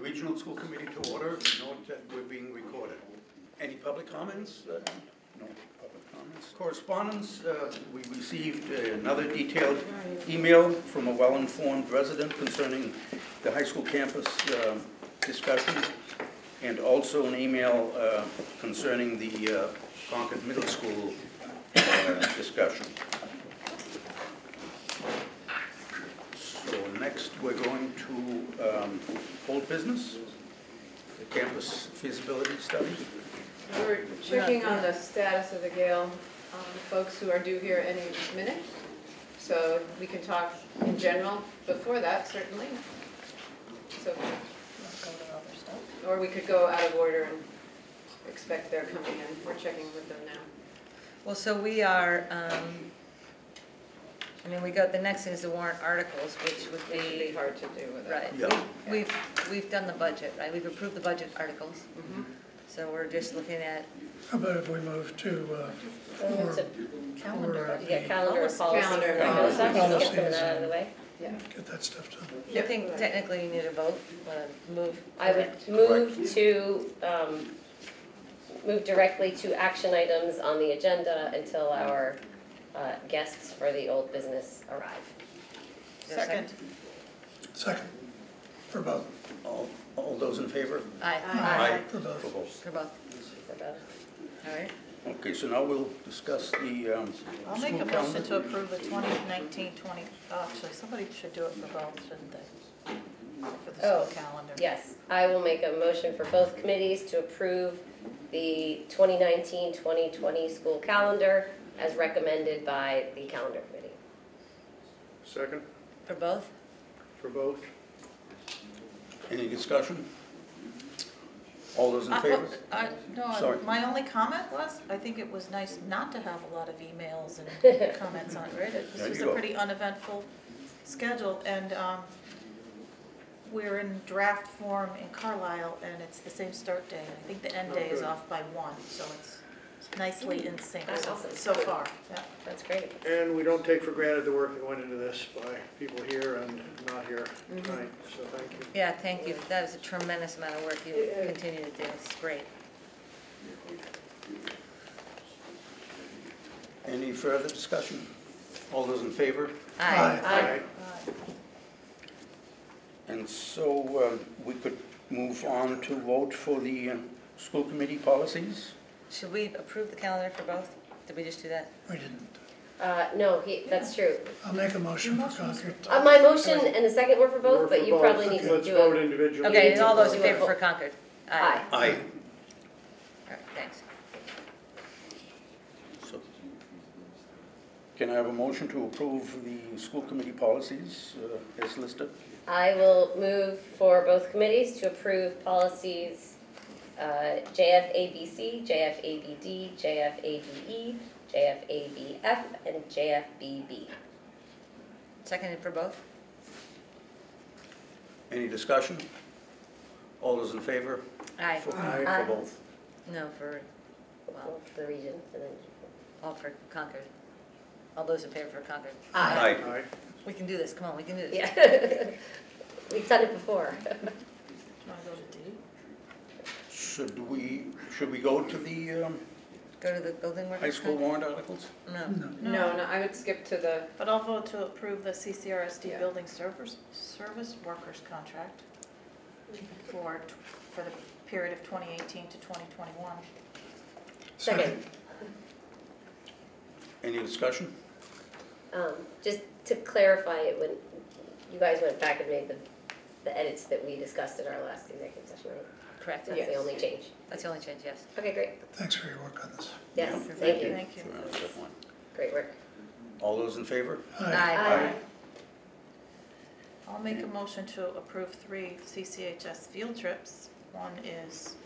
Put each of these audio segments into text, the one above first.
Regional School Committee to order. Note that we're being recorded. Any public comments? Uh, No public comments. Correspondence, uh, we received uh, another detailed email from a well-informed resident concerning the high school campus um, discussion, and also an email uh, concerning the uh, Concord Middle School uh, discussion. So next, we're going to um, old business, the campus feasibility study. We're checking on the status of the Gale um, folks who are due here any minute. So we can talk in general before that, certainly. So, or we could go out of order and expect they're coming in. We're checking with them now. Well, so we are, um, I mean, we got, the next is the warrant articles, which would It should be be, hard to do without. right. Yeah. We- We've, we've done the budget, right? We've approved the budget articles. So we're just looking at, How about if we move to, uh, four, four, uh, Yeah, calendar and policy. Calendar. Let's actually get Policies. that out of the way. Yeah. get that stuff done. I think technically you need a vote, wanna move. I would move to, um, move directly to action items on the agenda until our uh, guests for the old business arrive. Is there a Second. Second, for both. All, all those in favor? Aye. Aye. For both. For both. For both, For both. all right? Okay, so now we'll discuss the, um. I'll make a school motion to calendar. approve the 2019, 20, actually, somebody should do it for both, shouldn't they? For the Oh, school calendar. Yes, I will make a motion for both committees to approve the 2019-2020 school calendar as recommended by the calendar committee. Second, For both? for both. Any discussion? All those in Uh, favor? I, I- no, I- Sorry. my only comment was, I think it was nice not to have a lot of emails and comments on Reddit. There This was you a go. pretty uneventful schedule, and um, we're in draft form in Carlisle, and it's the same start day. I think the Oh, end day is off by one, so it's nicely in sync That's so- awesome. so far. Yeah. That's great. And we don't take for granted the work that went into this by people here and not here Mm-hmm. tonight, so thank you. Yeah, thank you. That was a tremendous amount of work you continue to do. It's great. Any further discussion? All those in favor? Aye. Aye. And so, um, we could move on to vote for the, uh, school committee policies? Should we approve the calendar for both? Did we just do that? We didn't. Uh, No, he- that's true. I'll make a motion for Concord. Uh, My motion and the second were for both, but you probably need to Let's do vote a individually. Okay, and all those in You wanna favor for vote? Concord? aye. Aye. All right, thanks. So, Can I have a motion to approve the school committee policies uh, as listed? I will move for both committees to approve policies uh, JFABC, JFABD, JFABE, JFABF, and JFBB. Seconded for both? Any discussion? All those in favor? Aye. For- Aye. For both. No, for, well, Well, The region, and then, all for Concord. All those in favor for Concord? Aye. Aye. We can do this, come on, we can do this. yeah. We've done it before. Do you want to go to D? Should we, should we go to the um, Go to the building workers. high school con- warrant articles? No, No. No, no, I would skip to the, But I'll vote to approve the CCRSD Yeah. building service, service workers contract for, tw- for the period of 2018 to 2021. Second. Any discussion? Um, Just to clarify, it when you guys went back and made the the edits that we discussed at our last executive session, right? correct, That's Yes. the only change. that's the only change, yes. Okay, great. Thanks for your work on this. Yes, Yeah. thank you. Thank you. Sure, that's a good one. Great work. All those in favor? Aye. Aye. I'll make a motion to approve three CCHS field trips. One is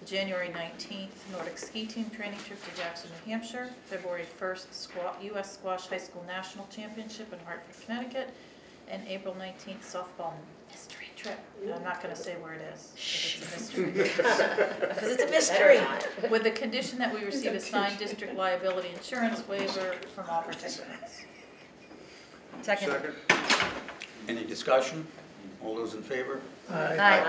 the January 19th Nordic Ski Team Training Trip to Jackson, New Hampshire, February 1st squash, US Squash High School National Championship in Hartford, Connecticut, and April 19th softball mystery trip. And I'm not gonna say where it is, because it's a mystery. Because it's a mystery, with the condition that we receive a signed district liability insurance waiver from all participants. Second. Second. Any discussion? All those in favor? Aye. Aye.